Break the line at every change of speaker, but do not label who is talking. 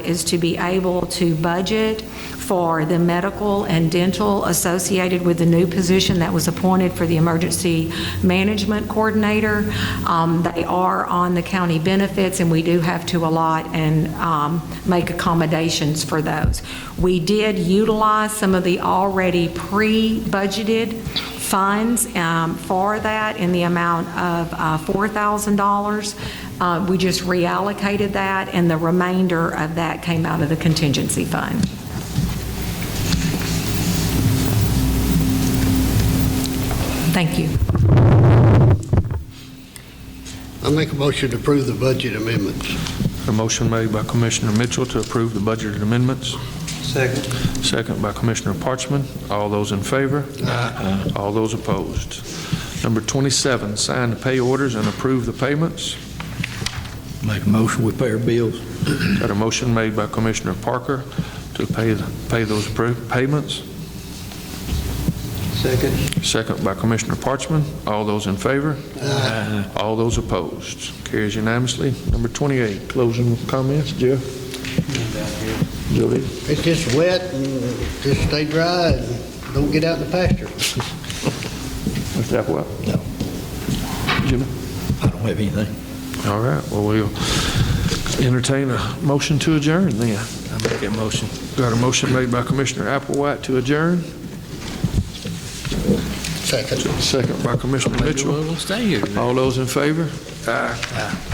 is to be able to budget for the medical and dental associated with the new position that was appointed for the emergency management coordinator. Um, They are on the county benefits, and we do have to allot and um, make accommodations for those. We did utilize some of the already pre-budgeted funds um, for that in the amount of uh, $4,000. Uh, We just reallocated that, and the remainder of that came out of the contingency fund. Thank you.
I make a motion to approve the budget amendments.
A motion made by Commissioner Mitchell to approve the budget amendments,
Second.
second by Commissioner Parchman. All those in favor? Aye. All those opposed? Number 27, sign the pay orders and approve the payments.
Make a motion, we pay our bills.
Got a motion made by Commissioner Parker to pay, pay those appro- payments,
Second.
second by Commissioner Parchman. All those in favor? Aye. All those opposed? Carries unanimously. Number 28, closing comments, Jeff? Julie?
It's just wet and just stay dry and don't get out in the pasture.
Mr. Applewhite?
No.
Jimmy?
I don't have anything.
All right, well, we'll entertain a motion to adjourn then.
I make that motion.
Got a motion made by Commissioner Applewhite to adjourn,
Second.
second by Commissioner Mitchell.
Stay here.
All those in favor? Aye.